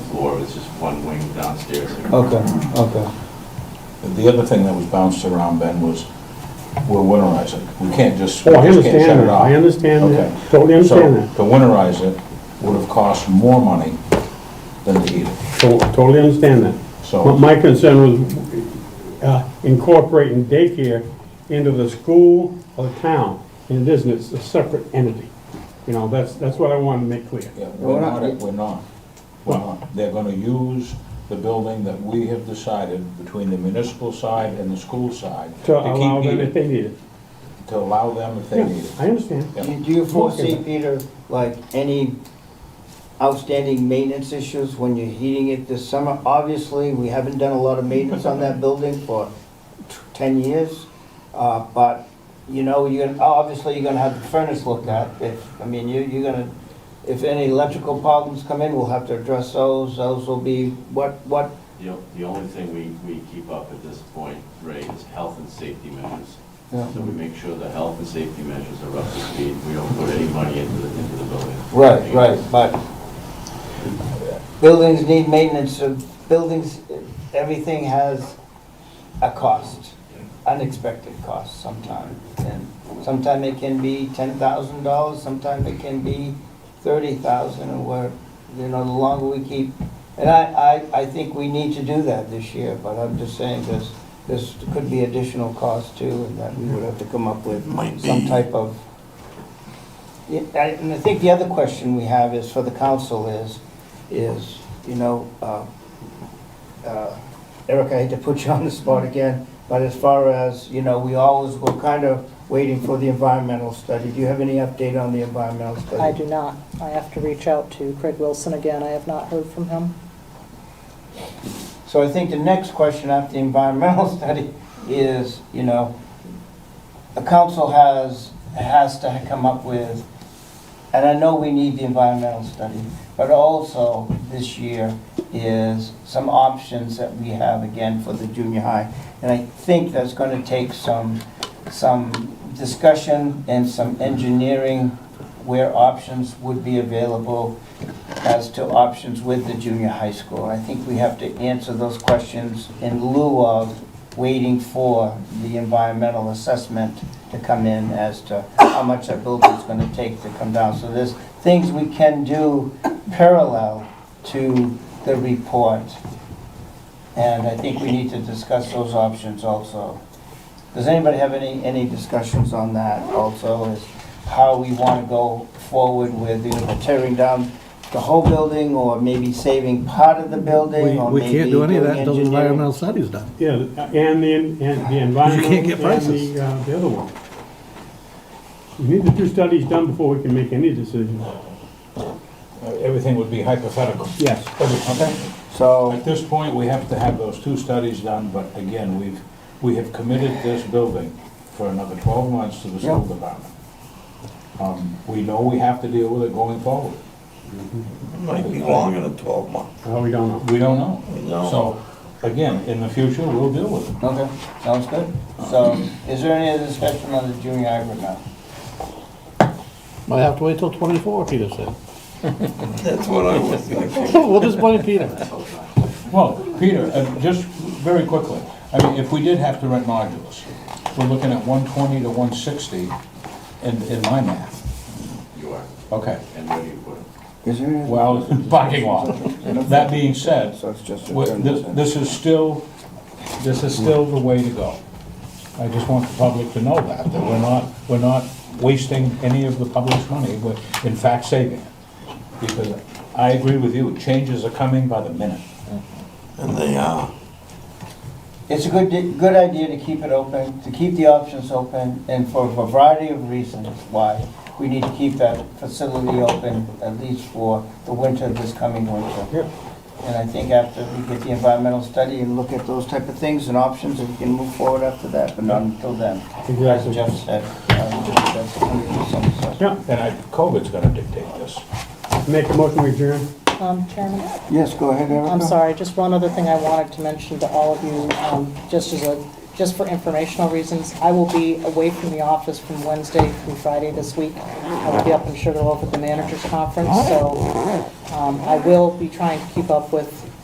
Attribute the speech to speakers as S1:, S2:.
S1: floor, it's just one wing downstairs.
S2: Oh.
S3: Okay, okay.
S4: The other thing that was bounced around, Ben, was we're winterizing. We can't just, we
S5: Oh, I
S4: just can't shut
S5: understand
S4: it
S5: that,
S4: off.
S5: I understand
S4: Okay.
S5: that, totally understand that,
S4: So to winterize it would have cost more money than to heat it.
S5: To- totally understand that. But
S4: So,
S5: my concern was uh, incorporating daycare into the school or the town, and it isn't, it's a separate entity. You know, that's, that's what I wanted to make clear.
S4: yeah,
S3: We're
S4: we're
S3: not-
S4: not, we're not. We're not. They're gonna use the building that we have decided between the municipal side and the school side
S5: To
S4: keep
S5: allow them
S4: heating,
S5: if they need it.
S4: To allow them if they
S5: Yeah,
S4: need it.
S5: I understand.
S4: Yeah.
S2: Do do you foresee, Peter, like any outstanding maintenance issues when you're heating it this summer? Obviously, we haven't done a lot of maintenance on that building for t- 10 years, uh, but, you know, you're, obviously, you're gonna have the furnace looked at. If, I mean, you, you're gonna, if any electrical problems come in, we'll have to address those. Those will be, what, what,
S1: The o- The only thing we, we keep up at this point, Ray, is health and safety measures. So we make sure the health and safety measures are up to speed, we don't put any money into the, into the building.
S2: Right, right, but buildings need maintenance, so buildings, everything has a cost, unexpected cost sometime. And sometime it can be ten thousand dollars, sometime it can be thirty thousand, and we're, you know, the longer we keep. And I, I, I think we need to do that this year, but I'm just saying this, this could be additional cost too, and that we would have to come up with some type of yeah, I- And I think the other question we have is, for the council is, is, you know, uh, uh, Eric, I hate to put you on the spot again, but as far as, you know, we always, we're kind of waiting for the environmental study. Do you have any update on the environmental study?
S6: I do not. I have to reach out to Craig Wilson again. I have not heard from him.
S2: So I think the next question after the environmental study is, you know, the council has, has to come up with, and I know we need the environmental study, but also this year is some options that we have again for the junior high. And I think that's gonna take some, some discussion and some engineering where options would be available as to options with the junior high school. I think we have to answer those questions in lieu of waiting for the environmental assessment to come in as to how much that building's gonna take to come down. So there's things we can do parallel to the report. And I think we need to discuss those options also. Does anybody have any, any discussions on that also, is how we wanna go forward with, you know, tearing down the whole building, or maybe saving part of the building, or
S7: We, we
S2: maybe
S7: can't do any of
S2: doing
S7: that until the
S2: engineering.
S7: environmental study's done.
S5: Yeah, and the, and the environmental
S7: can't get
S5: and
S7: prices.
S5: the, uh, the other one. We need the two studies done before we can make any decision.
S4: Everything would be hypothetical.
S5: Yes.
S4: Okay.
S2: So,
S4: At this point, we have to have those two studies done, but again, we've, we have committed this building for another 12 months to the school
S2: Yeah.
S4: department. Um, We know we have to deal with it going forward.
S8: Might be longer than twelve months.
S5: Oh, we don't know.
S4: We don't know.
S8: No.
S4: So, again, in the future, we'll deal with it.
S2: okay, sounds good. So, is there any other discussion on the junior high right now?
S7: Might have to wait till twenty-four, Peter said.
S8: That's what I was thinking.
S7: We'll just blame Peter.
S4: Well, Peter, uh, just very quickly, I mean, if we did have to rent modules, we're looking at 120 to 160 in, in my math.
S1: You are,
S4: Okay,
S1: and where do you put it?
S2: Is there any?
S4: well, parking lot. That being said,
S2: So it's just. a
S4: Well,
S2: general
S4: This
S2: thing.
S4: this is still, this is still the way to go. I just want the public to know that, that we're not, we're not wasting any of the public's money, we're in fact saving it. Because I agree with you, changes are coming by the minute.
S8: And they uh, are.
S2: It's a good, good idea to keep it open, to keep the options open, and for a variety of reasons why we need to keep that facility open, at least for the winter, this coming winter. And I think after we get the environmental study and look at those type of things and options, we can move forward after that, but not until then. As
S5: Exactly.
S2: Jeff said, um, that's hundred percent.
S5: Yeah,
S4: And I, COVID's gonna dictate this.
S5: make a motion we adjourn.
S6: Um, Chairman?
S2: Yes, go ahead, Erica.
S6: I'm sorry, just one other thing I wanted to mention to all of you, um, just as a just for informational reasons, I will be away from the office from Wednesday through Friday this week. I will be up in Sugarloaf at the managers' conference, so um, I will be trying to keep up with